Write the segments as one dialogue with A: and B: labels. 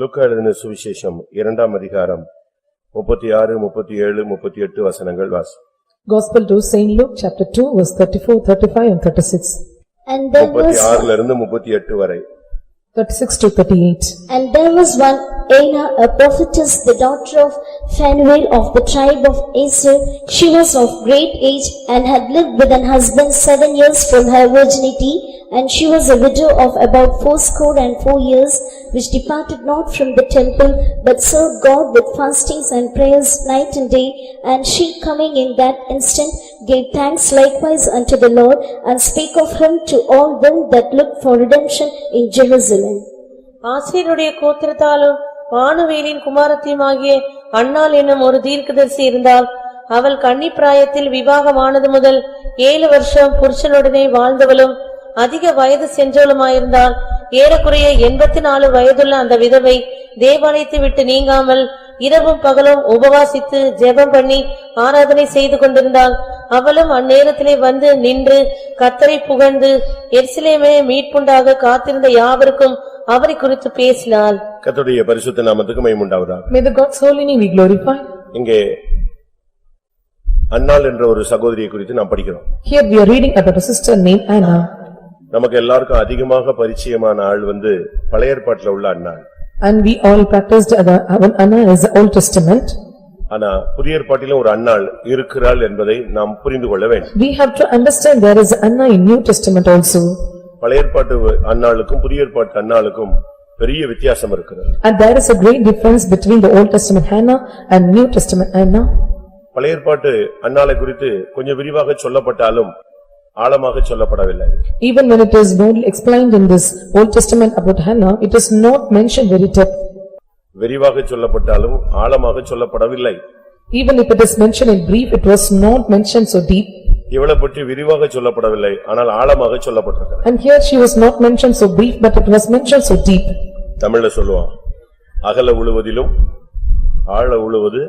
A: லூக்கா எழுதின சுவிசேஷம் இரண்டாம் அதிகாரம் முப்பத்தி ஆறு முப்பத்தி ஏழு முப்பத்தி எட்டு வசனங்கள் வாசி
B: Gospel to Saint Luke, chapter 2, verse 34, 35 and 36.
C: And there
A: முப்பத்தி
C: was,
A: ஆறுல இருந்து முப்பத்தி எட்டு வரை
B: 36 to 38.
C: and there was one Anna, a prophetess, the daughter of Phanuel of the tribe of Asher. She was of great age and had lived with an husband seven years from her virginity, and she was a widow of about fourscore and four years, which departed not from the temple, but served God with fastings and prayers night and day. And she coming in that instant gave thanks likewise unto the Lord, and spake of him to all them that looked for redemption in Jerusalem.
D: ஆசீருடைய கோத்திரத்தாலும் வானுவேலின் குமாரத்தியுமாகிய அன்னாள் என்னும் ஒரு தீர்க்கதரிசி இருந்தாள் அவள் கன்னிப் பிராயத்தில் விவாகமானது முதல் ஏழு வருஷம் புருஷனுடனே வாழ்ந்தவளும் அதிக வயது சென்றவளுமாயிருந்தாள் ஏறக்குறைய எண்பத்தி நாலு வயதுள்ள அந்த விதவை தேவாலயத்தை விட்டு நீங்காமல் இரவும் பகலும் உபவாசித்து ஜெபம் பண்ணி ஆராதனை செய்து கொண்டிருந்தாள் அவளும் அந்நேரத்திலே வந்து நின்று கத்தரை புகழ்ந்து எருசலேமே மீட்புண்டாக காத்திருந்த யாவருக்கும் அவரை குறித்து பேசினாள்
A: கர்த்தருடைய பரிசுத்த நாமத்துக்கு மைமுண்டாவதாக
B: May the God's holy name be glorified.
A: இங்கே அன்னாள் என்ற ஒரு சகோதரியை குறித்து நாம் படிக்கிறோம்
B: Here we are reading about a sister named Anna.
A: நமக்கு எல்லாருக்கும் அதிகமாக பரிச்சயமான ஆள் வந்து பழைய ஏற்பாட்டில் உள்ள அன்னாள்
B: And we all practiced Anna our Anna is the Old Testament.
A: ஆனா புதிய ஏற்பாட்டிலும் ஒரு அன்னாள் இருக்கிறாள் என்பதை நாம் புரிந்து கொள்ள வேண்டும்
B: We have to understand there is Anna in New Testament also.
A: பழைய ஏற்பாட்டு அன்னாளுக்கும் புதிய ஏற்பாட்டு அன்னாளுக்கும் பெரிய வித்தியாசம் இருக்கிறது
B: And there is a great difference between the Old Testament Hannah and New Testament Anna.
A: பழைய ஏற்பாட்டு அன்னாளை குறித்து கொஞ்சம் விரிவாக சொல்லப்பட்டாலும் ஆழமாக சொல்லப்படவில்லை
B: Even when it is boldly explained in this Old Testament about Hannah, it is not mentioned very depth.
A: விரிவாக சொல்லப்பட்டாலும் ஆழமாக சொல்லப்படவில்லை
B: Even if it is mentioned in brief, it was not mentioned so deep.
A: இவளை பற்றி விரிவாக சொல்லப்படவில்லை ஆனால் ஆழமாக சொல்லப்பட்டிருக்கிறது
B: And here she was not mentioned so brief, but it was mentioned so deep.
A: தமிழ்ல சொல்லுவான் அகல உழுவதிலும் ஆழ உழுவது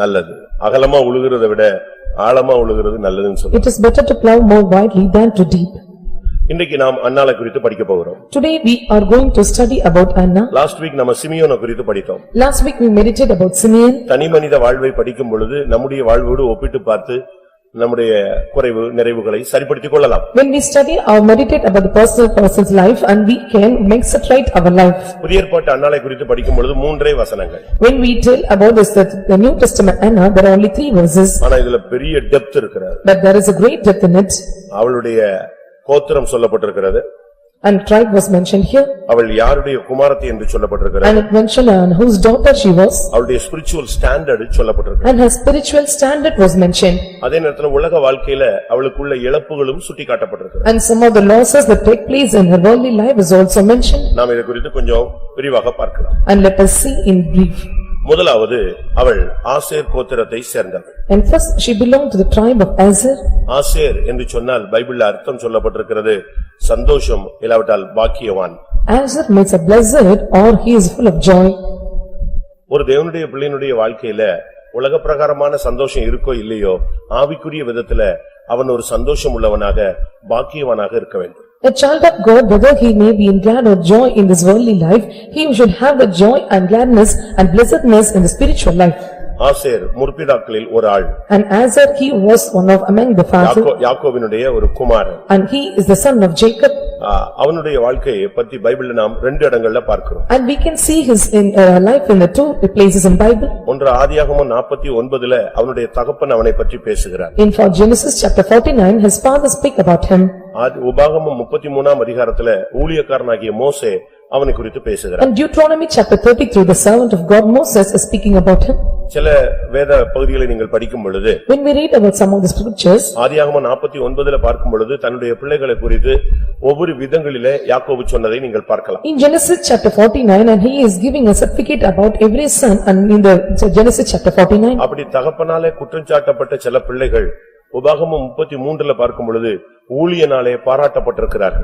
A: நல்லது அகலமா உழுகிறதை விட ஆழமா உழுகிறது நல்லதுன்னு சொல்லுவான்
B: It is better to plow more widely than to deep.
A: இன்னைக்கு நாம் அன்னாளை குறித்து படிக்க போகிறோம்
B: Today we are going to study about Anna.
A: Last week நம்ம சிமியோனை குறித்து படித்தோம்
B: Last week we meditated about Simeon
A: தனி மனித வாழ்வை படிக்கும் பொழுது நம்முடைய வாழ்வோடு ஒப்பிட்டு பார்த்து நம்முடைய குறைவு நிறைவுகளை சரிப்படுத்திக் கொள்ளலாம்
B: When we study or meditate about the personal person's life and we can make it right our life.
A: புதிய ஏற்பாட்டு அன்னாலை குறித்து படிக்கும் பொழுது மூன்றே வசனங்கள்
B: When we tell about this, that the New Testament Anna, there are only three verses,
A: ஆனா இதுல பெரிய டெப்த் இருக்கிறது
B: but there is a great depth in it.
A: அவளுடைய கோத்திரம் சொல்லப்பட்டிருக்கிறது
B: And tribe was mentioned here,
A: அவள் யாருடைய குமாரத்தி என்று சொல்லப்பட்டிருக்கிறது
B: and it mentioned on whose daughter she was,
A: அவளுடைய ஸ்பிரிச்சுவல் ஸ்டாண்டர்ட் சொல்லப்பட்டிருக்கு
B: and her spiritual standard was mentioned,
A: அதே நேரத்துல உலக வாழ்க்கையில அவளுக்குள்ள இழப்புகளும் சுட்டி காட்டப்பட்டிருக்கு
B: and some of the losses that take place in her worldly life is also mentioned,
A: நாம் இதை குறித்து கொஞ்சம் விரிவாக பார்க்கலாம்
B: and let us see in brief.
A: முதலாவது அவள் ஆசேர் கோத்திரத்தை சேர்ந்தவள்
B: And first, she belonged to the tribe of Azar,
A: Asher என்று சொன்னால் பைபிள்ல அர்த்தம் சொல்லப்பட்டிருக்கிறது சந்தோஷம் இல்லாவிட்டால் பாக்கியவான்
B: Azar means a blessed or he is full of joy.
A: ஒரு தேவனுடைய பிள்ளையினுடைய வாழ்க்கையில உலக பிரகாரமான சந்தோஷம் இருக்கோ இல்லையோ ஆவிக்குரிய விதத்துல அவன் ஒரு சந்தோஷம் உள்ளவனாக பாக்கியவனாக இருக்க வேண்டும்
B: A child of God, whether he may be in glad or joy in this worldly life, he should have the joy and gladness and blessedness in the spiritual life.
A: Asher முற்பிதாக்களில் ஒரு ஆள்
B: And Azar, he was one of among the fathers,
A: யாக்கோ- யாக்கோபினுடைய ஒரு குமாரன்
B: and he is the son of Jacob.
A: ஆ, அவனுடைய வாழ்க்கையை பத்தி பைபிள்ல நாம் ரெண்டு இடங்கள்ல பார்க்கிறோம்
B: And we can see his in uh, life in the two places in Bible.
A: ஒன்று ஆதியாகமம் நாற்பத்தி ஒன்பதுல அவனுடைய தகப்பன் அவனை பற்றி பேசுகிறார்
B: In for Genesis chapter forty-nine, his father speak about him.
A: ஆதி- உபாகமம் முப்பத்தி மூணாம் அதிகாரத்துல ஊழியக்காரனாகிய மோசே அவனை குறித்து பேசுகிறார்
B: And Deuteronomy chapter thirty-three, the servant of God Moses is speaking about him.
A: சில வேத பகுதிகளை நீங்கள் படிக்கும் பொழுது
B: When we read about some of the scriptures,
A: ஆதியாகமம் நாற்பத்தி ஒன்பதுல பார்க்கும் பொழுது தன்னுடைய பிள்ளைகளை குறித்து ஒவ்வொரு விதங்களிலே யாக்கோபு சொன்னதை நீங்கள் பார்க்கலாம்
B: in Genesis chapter forty-nine, and he is giving a certificate about every son, and in the Genesis chapter forty-nine.
A: அப்படி தகப்பனாலே குற்றம் சாட்டப்பட்ட சில பிள்ளைகள் உபாகமம் முப்பத்தி மூன்றுல பார்க்கும் பொழுது ஊழியனாலே பாராட்டப்பட்டிருக்கிறார்கள்